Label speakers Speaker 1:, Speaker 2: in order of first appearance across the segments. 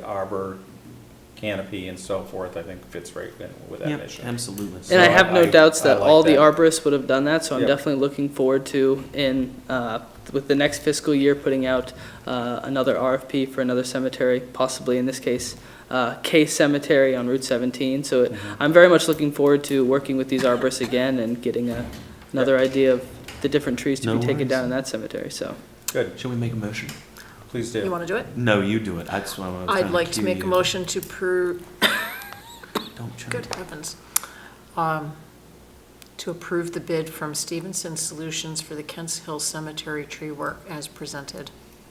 Speaker 1: arbor canopy and so forth, I think fits right in with that
Speaker 2: Yep,
Speaker 1: mission.
Speaker 2: absolutely.
Speaker 1: So
Speaker 3: And I have no
Speaker 1: I-
Speaker 3: doubts
Speaker 1: I
Speaker 3: that
Speaker 1: like
Speaker 3: all the
Speaker 1: that.
Speaker 3: arborists would have done that, so I'm
Speaker 1: Yep.
Speaker 3: definitely looking forward to in, uh, with the next fiscal year, putting out uh, another RFP for another cemetery, possibly in this case, uh, K Cemetery on Route 17. So it- I'm very much looking forward to working with these arborists again and getting a- another idea of the different trees to
Speaker 2: No
Speaker 3: be taken
Speaker 2: worries.
Speaker 3: down in that cemetery, so.
Speaker 1: Good,
Speaker 2: Shall we make a motion?
Speaker 1: please
Speaker 4: You
Speaker 1: do.
Speaker 4: want to do it?
Speaker 2: No, you do it. That's what I was trying
Speaker 4: I'd like to
Speaker 2: cue
Speaker 4: make a
Speaker 2: you.
Speaker 4: motion to approve,
Speaker 2: Don't try.
Speaker 4: good heavens, Um, to approve the bid from Stevenson Solutions for the Kents Hill Cemetery tree work as presented.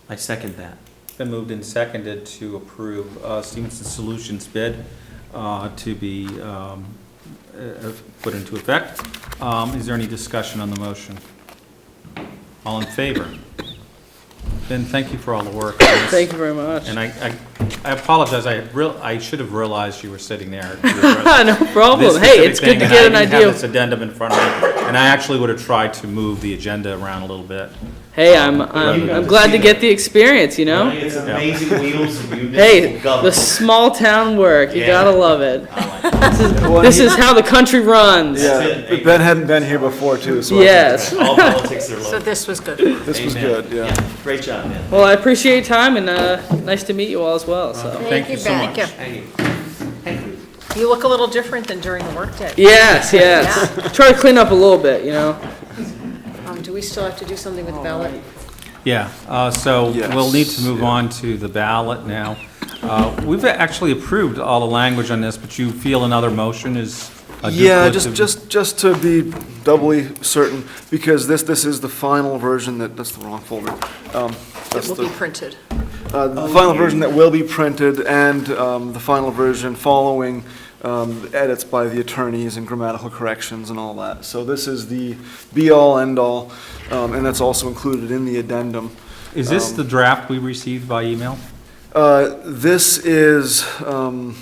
Speaker 2: I second that.
Speaker 1: Been moved and seconded to approve uh, Stevenson Solutions bid uh, to be um, uh, put into effect. Um, Is there any discussion on the motion? All in favor? Ben, thank you for all the work.
Speaker 3: Thank you very much.
Speaker 1: And I, I- I apologize, I real, I should have realized you were sitting there. You were addressing
Speaker 3: Ah, No
Speaker 1: this
Speaker 3: problem. Oh, Hey,
Speaker 1: specific
Speaker 3: it's good to
Speaker 1: thing,
Speaker 3: get an
Speaker 1: and I didn't
Speaker 3: idea.
Speaker 1: have this
Speaker 3: of-
Speaker 1: addendum in front of me, and I actually would have tried to move the agenda around a little bit.
Speaker 3: Hey, I'm,
Speaker 1: You
Speaker 3: I'm
Speaker 1: got
Speaker 3: I'm
Speaker 1: to
Speaker 3: glad
Speaker 5: see
Speaker 3: to get the experience, you know?
Speaker 5: It's
Speaker 1: Yeah.
Speaker 5: amazing wheels of
Speaker 3: Hey,
Speaker 5: municipal
Speaker 3: the
Speaker 5: government.
Speaker 3: small town work, you
Speaker 5: Yeah.
Speaker 3: gotta love it. This is,
Speaker 6: Well,
Speaker 3: this
Speaker 6: he-
Speaker 3: is how the country runs.
Speaker 6: Yeah,
Speaker 5: it.
Speaker 6: but Ben hadn't been here before too, so. I think
Speaker 3: Yes.
Speaker 5: All politics are
Speaker 4: So
Speaker 5: local.
Speaker 4: this was good.
Speaker 6: This was
Speaker 5: Amen.
Speaker 6: good, yeah.
Speaker 5: Great job, man.
Speaker 3: Well, I appreciate your time and, uh, nice to meet you all as well,
Speaker 6: Uh-huh.
Speaker 3: so.
Speaker 1: Thank you so
Speaker 4: Thank
Speaker 1: much.
Speaker 5: Thank you. Thank you.
Speaker 4: You look a little different than during the workday.
Speaker 3: Yes, yes. Try to clean up a little bit, you know?
Speaker 4: Um, Do we still have to do something with ballot?
Speaker 1: Yeah, uh, so we'll need to
Speaker 6: Yes,
Speaker 1: move
Speaker 6: yeah.
Speaker 1: on to the ballot now. Uh, We've actually approved all the language on this, but you feel another motion is a
Speaker 6: Yeah, just,
Speaker 1: duplicative-
Speaker 6: just, just to be doubly certain, because this, this is the final version that, that's the wrong folder. Um,
Speaker 4: It
Speaker 6: that's
Speaker 4: will
Speaker 6: the-
Speaker 4: be printed.
Speaker 6: Uh, The final version that will be printed and um, the final version following um, edits by the attorneys and grammatical corrections and all that. So this is the be-all, end-all, um, and that's also included in the addendum.
Speaker 1: Is this
Speaker 6: um,
Speaker 1: the draft we received by email?
Speaker 6: Uh, This is, um,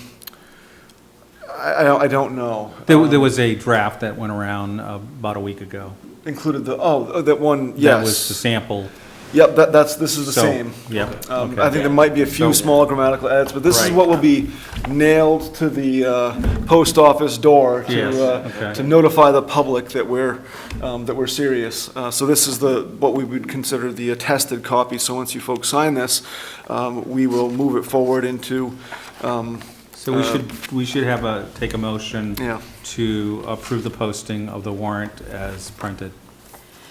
Speaker 6: I I don't- I don't know,
Speaker 1: There there was a draft that went around uh, about a week ago.
Speaker 6: included the, oh, that one,
Speaker 1: That was the
Speaker 6: yes.
Speaker 1: sample.
Speaker 6: Yep, that- that's, this is the
Speaker 1: so-
Speaker 6: same.
Speaker 1: Yep.
Speaker 6: Um,
Speaker 1: okay.
Speaker 6: I think there might be a few
Speaker 1: So-
Speaker 6: small grammatical edits, but this is
Speaker 1: Right.
Speaker 6: what will be nailed to the uh, post office door
Speaker 1: Yes,
Speaker 6: to,
Speaker 1: okay.
Speaker 6: uh, to notify the public that we're, um, that we're serious. Uh, So this is the, what we would consider the attested copy, so once you folks sign this, um, we will move it forward into, um,
Speaker 1: So we should, we should have a, take a motion
Speaker 6: Yeah.
Speaker 1: to approve the posting of the warrant as printed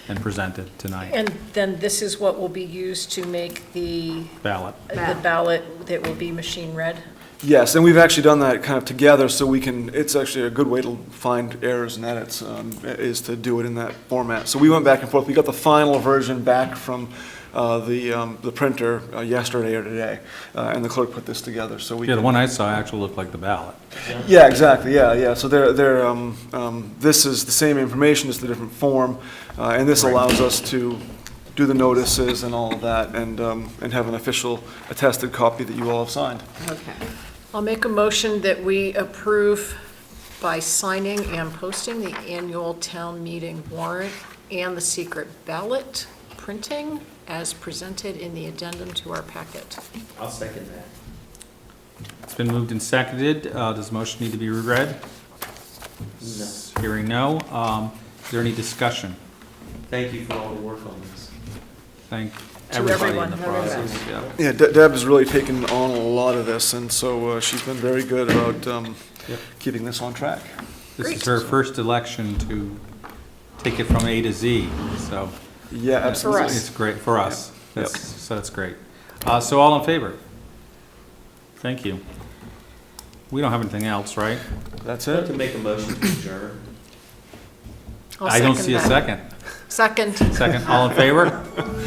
Speaker 1: and presented tonight.
Speaker 4: And then this is what will be used to make the
Speaker 1: Ballot.
Speaker 4: the ballot that will be machine read?
Speaker 6: yes, and we've actually done that kind of together, so we can, it's actually a good way to find errors and edits, um, is to do it in that format. So we went back and forth, we got the final version back from uh, the, um, the printer uh, yesterday or today, uh, and the clerk put this together, so we.
Speaker 1: Yeah, the
Speaker 6: can-
Speaker 1: one I saw actually looked like the ballot.
Speaker 6: Yeah, exactly, yeah, yeah, so they're, they're, um, um, this is the same information, it's the different form, uh, and this allows us to do the notices and all of that, and, um, and have an official attested copy that you all have signed.
Speaker 4: Okay. I'll make a motion that we approve by signing and posting the annual town meeting warrant and the secret ballot printing as presented in the addendum to our packet.
Speaker 5: I'll second that.
Speaker 1: It's been moved and seconded. Uh, Does the motion need to be reread?
Speaker 5: No.
Speaker 1: Hearing no. Um, Is there any discussion?
Speaker 5: Thank you for all the work on this.
Speaker 1: Thank
Speaker 4: To
Speaker 1: everybody in
Speaker 4: everyone,
Speaker 1: the
Speaker 4: everyone.
Speaker 1: process. yeah.
Speaker 6: Yeah, De- Deb has really taken on a lot of this, and so uh, she's been very good about um,
Speaker 1: Yep.
Speaker 6: keeping this on track.
Speaker 1: This is
Speaker 4: Great.
Speaker 1: her first election to take it from A to Z, so.
Speaker 6: Yeah, absolutely.
Speaker 4: us.
Speaker 1: It's great, for us.
Speaker 6: Yep.
Speaker 1: That's, so that's great. Uh, so all in favor? Thank you. We don't have anything else, right?
Speaker 6: That's
Speaker 5: I'd like to
Speaker 6: it.
Speaker 5: make a motion to adjourn.
Speaker 4: I'll
Speaker 1: I don't see a
Speaker 4: that.
Speaker 1: second.
Speaker 4: Second.
Speaker 1: Second, all in favor?